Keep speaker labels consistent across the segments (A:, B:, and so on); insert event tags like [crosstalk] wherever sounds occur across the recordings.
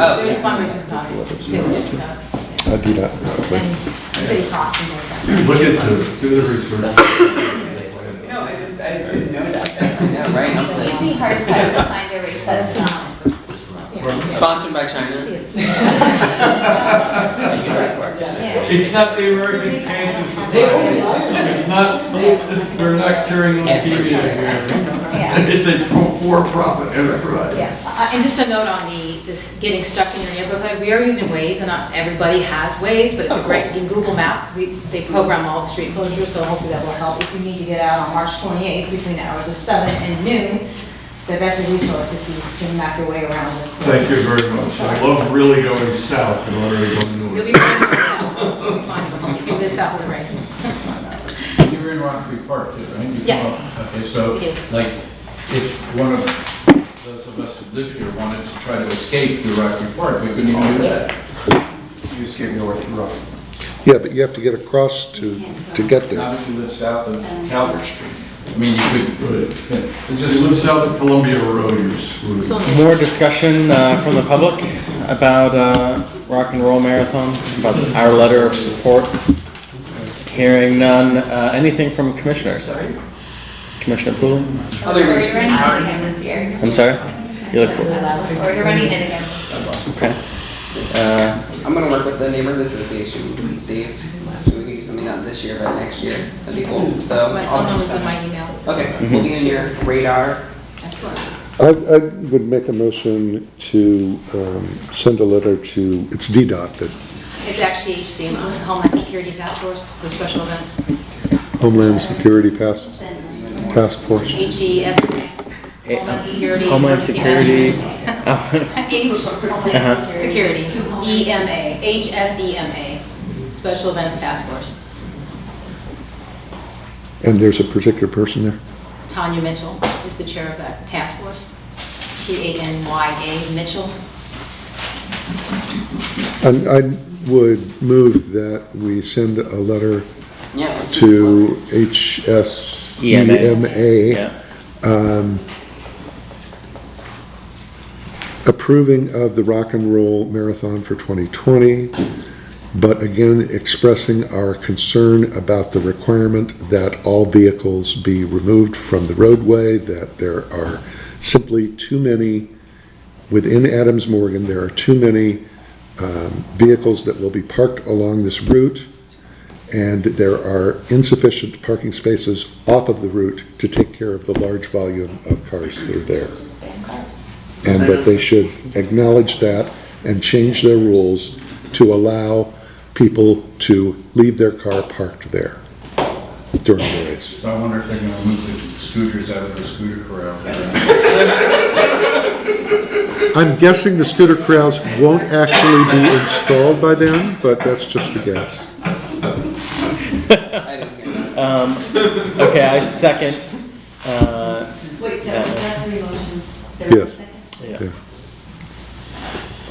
A: Oh,
B: There's
A: yeah.
B: fundraisers coming too, so
C: I do that.
B: it's, uh, and city costs and things
D: Look into, it, do the research.
A: No, I just, I didn't know that. Yeah, right.
E: You'd
A: I'm
E: be hard
B: [laughs]
E: pressed to find a um, race that's not.
A: like, Sponsored by China.
E: Yeah.
D: It's not the American Cancer Society. It's not, we're not curing leukemia here.
E: Yeah.
D: It's a pro- for-profit enterprise.
B: Yes, Uh, and just a note on the, just getting stuck in your neighborhood, we are using Waze, and not everybody has Waze, but it's a great, in Google Maps, we, they program all the street closures, so hopefully that will help. If you need to get out on March 28th between the hours of seven and noon, that that's a resource if you can map your way around. the-
D: Thank you very much. I love really going south in order to go north.
B: You'll be fine, you'll be fine, if you live south of the races.
F: You're in Rock Creek Park too, right? You come
B: Yes.
F: up- Okay, so,
B: We do.
F: like, if one of those of us who live here wanted to try to escape through Rock Creek Park, we couldn't even do that. You escape north through Rock.
C: Yeah, but you have to get across to, to get there.
F: Not if you live south of Calvert Street. I mean, you could,
D: Right.
F: it
D: If you
F: just,
D: live south of Columbia Road, you're screwed.
B: So,
G: More discussion uh, from the public about uh, Rock and Roll Marathon, about our letter of support. Hearing none, uh, anything from commissioners? Commissioner Pooley?
E: Or running it again this year.
G: I'm sorry? You look for,
E: Or you're running it again this year.
G: okay. Uh,
A: I'm gonna work with the neighborhood association and see if so we can do something not this year, but next year. That'd be cool. So.
B: my
A: I'll
B: cell
A: just-
B: number's in my email.
A: Okay, we'll be in your radar.
B: Excellent.
C: I, I would make a motion to um, send a letter to, it's DDOT, that
B: It's actually HCMO, uh, Homeland Security Task Force for special events,
C: Homeland Security Task, Task Force.
B: E HESA,
G: eh,
B: Homeland Security. E
G: Homeland Security.
B: [laughs]
G: Uh-huh.
B: H- Security, E EMA, HSEMA, E Special Events Task Force,
C: And there's a particular person there?
B: Tanya Mitchell is the chair of that task force, T-A-N-Y-A Mitchell.
C: And I would move that we send a letter
A: Yeah, let's do this
C: to E
A: one.
C: HSEMA
G: [laughs] Yeah.
C: approving of the Rock and Roll Marathon for 2020, but again expressing our concern about the requirement that all vehicles be removed from the roadway, that there are simply too many, within Adams Morgan, there are too many um, vehicles that will be parked along this route, and there are insufficient parking spaces off of the route to take care of the large volume of cars that are there
E: Just ban cars.
C: and that they should acknowledge that and change their rules to allow people to leave their car parked there during the race.
F: so I wonder if they're gonna move the scooters out of the scooter corrals.
C: I'm guessing the scooter corrals won't actually be installed by then, but that's just a guess.
A: I didn't hear that.
G: Um, Okay, I second. uh,
E: Wait,
G: that-
E: three motions.
C: Yes.
G: yeah.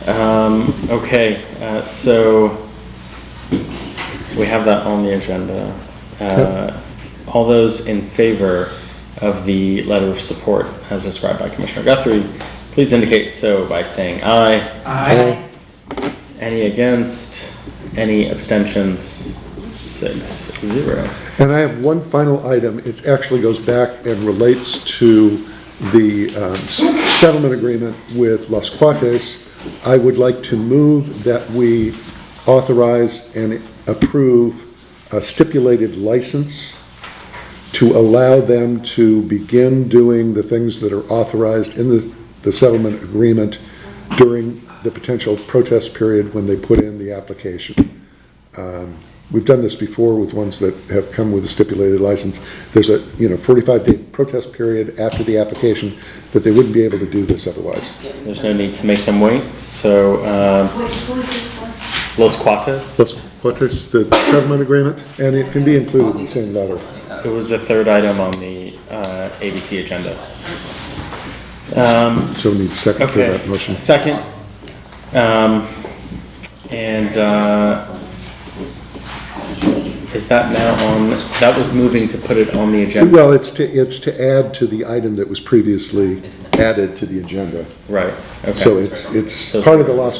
G: Um, Okay, uh, so we have that on the agenda. Uh, All those in favor of the letter of support as described by Commissioner Guthrie, please indicate so by saying aye.
C: Aye.
G: Any against? Any abstentions? Six, zero.
C: And I have one final item. It actually goes back and relates to the um, s- settlement agreement with Las Cuates. I would like to move that we authorize and approve a stipulated license to allow them to begin doing the things that are authorized in the, the settlement agreement during the potential protest period when they put in the application. We've done this before with ones that have come with a stipulated license. There's a, you know, 45-day protest period after the application, that they wouldn't be able to do this otherwise.
G: There's no need to make them wait, so, um,
E: Wait, who is this for?
G: Los Cuates,
C: That's what is the settlement agreement, and it can be included in the same letter.
G: it was the third item on the, uh, ABC agenda. Um,
C: So we need a second for
G: okay,
C: that motion.
G: second. Um, and, uh, is that now on, that was moving to put it on the agenda,
C: Well, it's to, it's to add to the item that was previously added to the agenda.
G: right, okay.
C: So it's, it's
G: So-
C: part of the Las